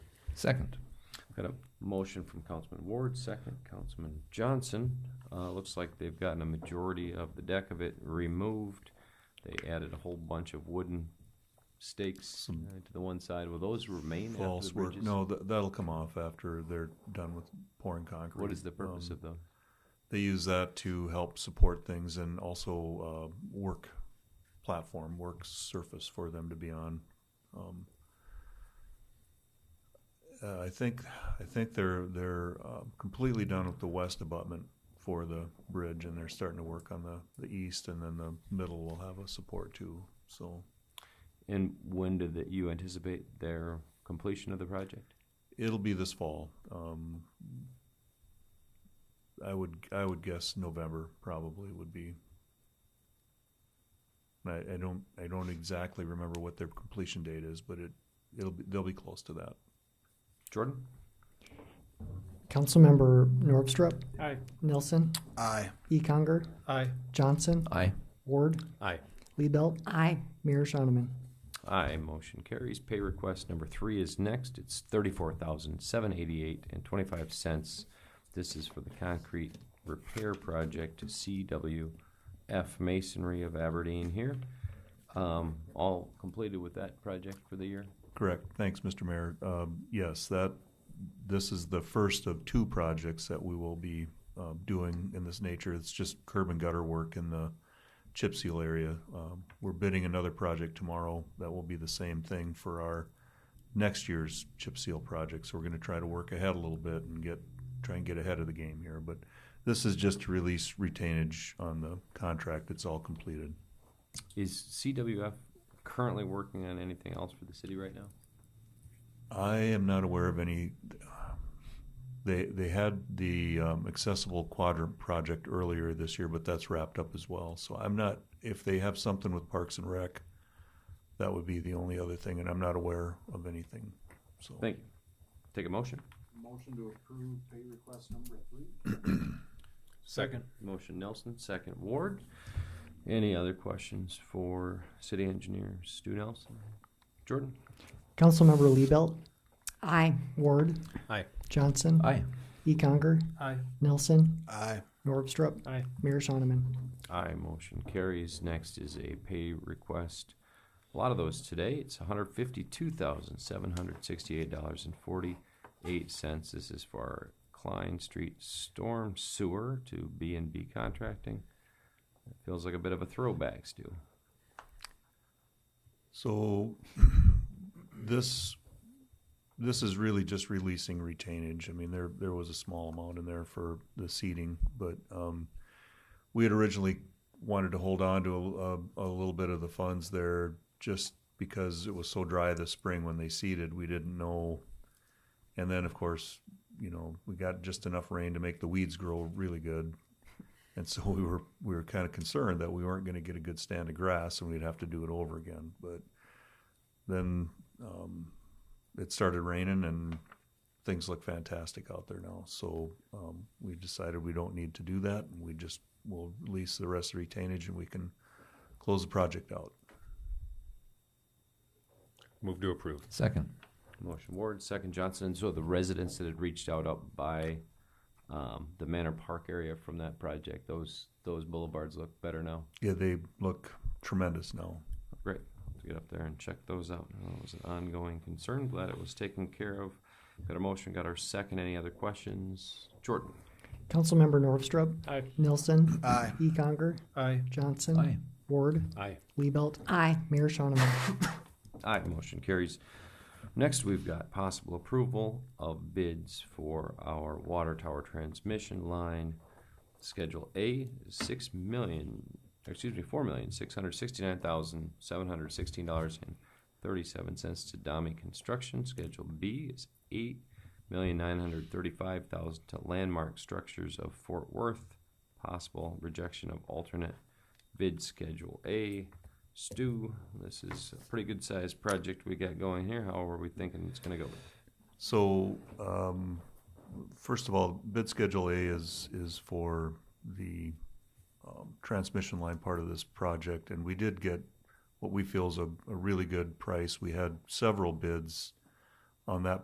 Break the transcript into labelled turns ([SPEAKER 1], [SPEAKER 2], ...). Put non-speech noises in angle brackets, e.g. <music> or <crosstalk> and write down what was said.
[SPEAKER 1] Second.
[SPEAKER 2] Got a motion from Councilman Ward, second Councilman Johnson. Uh, looks like they've gotten a majority of the deck of it removed. They added a whole bunch of wooden stakes
[SPEAKER 3] Some
[SPEAKER 2] uh, to the one side. Will those remain after the
[SPEAKER 3] False work,
[SPEAKER 2] bridges?
[SPEAKER 3] no, tha- that'll come off after they're done with pouring concrete.
[SPEAKER 2] What is the purpose
[SPEAKER 3] Um,
[SPEAKER 2] of those?
[SPEAKER 3] They use that to help support things and also, uh, work platform, work surface for them to be on. Um, uh, I think, I think they're, they're, uh, completely done with the west abutment for the bridge and they're starting to work on the, the east and then the middle will have a support too, so.
[SPEAKER 2] And when do that you anticipate their completion of the project?
[SPEAKER 3] It'll be this fall. Um, I would I would guess November probably would be. I, I don't I don't exactly remember what their completion date is, but it it'll be, they'll be close to that.
[SPEAKER 2] Jordan?
[SPEAKER 4] Councilmember Norvstrup,
[SPEAKER 5] Aye.
[SPEAKER 4] Nelson,
[SPEAKER 6] Aye.
[SPEAKER 4] Econger,
[SPEAKER 5] Aye.
[SPEAKER 4] Johnson,
[SPEAKER 2] Aye.
[SPEAKER 4] Ward,
[SPEAKER 5] Aye.
[SPEAKER 4] Liebelt,
[SPEAKER 7] Aye.
[SPEAKER 4] Mayor Shonneman.
[SPEAKER 2] Aye, motion carries. Pay request number three is next. It's thirty-four thousand, seven eighty-eight and twenty-five cents. This is for the concrete repair project to CWF Masonry of Aberdeen here. Um, all completed with that project for the year?
[SPEAKER 3] Correct. Thanks, Mr. Mayor. Um, yes, that this is the first of two projects that we will be um, doing in this nature. It's just curb and gutter work in the chip seal area. Um, we're bidding another project tomorrow that will be the same thing for our next year's chip seal project. So we're going to try to work ahead a little bit and get try and get ahead of the game here. But this is just to release retainage on the contract. It's all completed.
[SPEAKER 2] Is CWF currently working on anything else for the city right now?
[SPEAKER 3] I am not aware of any. They they had the um, accessible quadrant project earlier this year, but that's wrapped up as well. So I'm not. If they have something with Parks and Rec, that would be the only other thing, and I'm not aware of anything. So
[SPEAKER 2] Thank you. Take a motion.
[SPEAKER 6] Motion to approve pay request number three?
[SPEAKER 5] Second.
[SPEAKER 2] Motion Nelson, second Ward. Any other questions for city engineer Stu Nelson? Jordan?
[SPEAKER 4] Councilmember Liebelt,
[SPEAKER 7] Aye.
[SPEAKER 4] Ward.
[SPEAKER 5] Aye.
[SPEAKER 4] Johnson.
[SPEAKER 2] Aye.
[SPEAKER 4] Econger,
[SPEAKER 5] Aye.
[SPEAKER 4] Nelson,
[SPEAKER 6] Aye.
[SPEAKER 4] Norvstrup,
[SPEAKER 5] Aye.
[SPEAKER 4] Mayor Shonneman.
[SPEAKER 2] Aye, motion carries. Next is a pay request. A lot of those today. It's hundred fifty-two thousand, seven hundred sixty-eight dollars and forty-eight cents. This is for our Klein Street Storm Sewer to B and B Contracting. It Feels like a bit of a throwback, Stu.
[SPEAKER 3] So <clears throat> this this is really just releasing retainage. I mean, there there was a small amount in there for the seating, but um, we had originally wanted to hold on to a, a, a little bit of the funds there just because it was so dry this spring when they seeded. We didn't know, and then of course, you know, we got just enough rain to make the weeds grow really good. And so we were we were kind of concerned that we weren't going to get a good stand of grass and we'd have to do it over again. But then um, it started raining and things look fantastic out there now. So um, we decided we don't need to do that. And we just will release the rest of the retainage and we can close the project out.
[SPEAKER 5] Move to approve.
[SPEAKER 1] Second.
[SPEAKER 2] Motion Ward, second Johnson. So the residents that had reached out up by um, the Manor Park area from that project, those those boulevards look better now.
[SPEAKER 3] Yeah, they look tremendous now.
[SPEAKER 2] Great. I'll have to get up there and check those out. I know It was an ongoing concern. Glad it was taken care of. Got a motion, got our second. Any other questions? Jordan?
[SPEAKER 4] Councilmember Norvstrup,
[SPEAKER 5] Aye.
[SPEAKER 4] Nelson,
[SPEAKER 6] Aye.
[SPEAKER 4] Econger,
[SPEAKER 5] Aye.
[SPEAKER 4] Johnson.
[SPEAKER 1] Aye.
[SPEAKER 4] Ward,
[SPEAKER 5] Aye.
[SPEAKER 4] Liebelt,
[SPEAKER 7] Aye.
[SPEAKER 4] Mayor Shonneman.
[SPEAKER 2] Aye, motion carries. Next, we've got possible approval of bids for our water tower transmission line. Schedule A, is six million, excuse me, four million, six hundred sixty-nine thousand, seven hundred sixteen dollars and thirty-seven cents to Dami Construction. Schedule B is eight million, nine hundred thirty-five thousand to Landmark Structures of Fort Worth. Possible rejection of alternate bid schedule A. Stu, this is a pretty good sized project we got going here. How are we thinking it's gonna go?
[SPEAKER 3] So, um, first of all, bid schedule A is, is for the, um, transmission line part of this project, and we did get what we feel is a, a really good price. We had several bids on that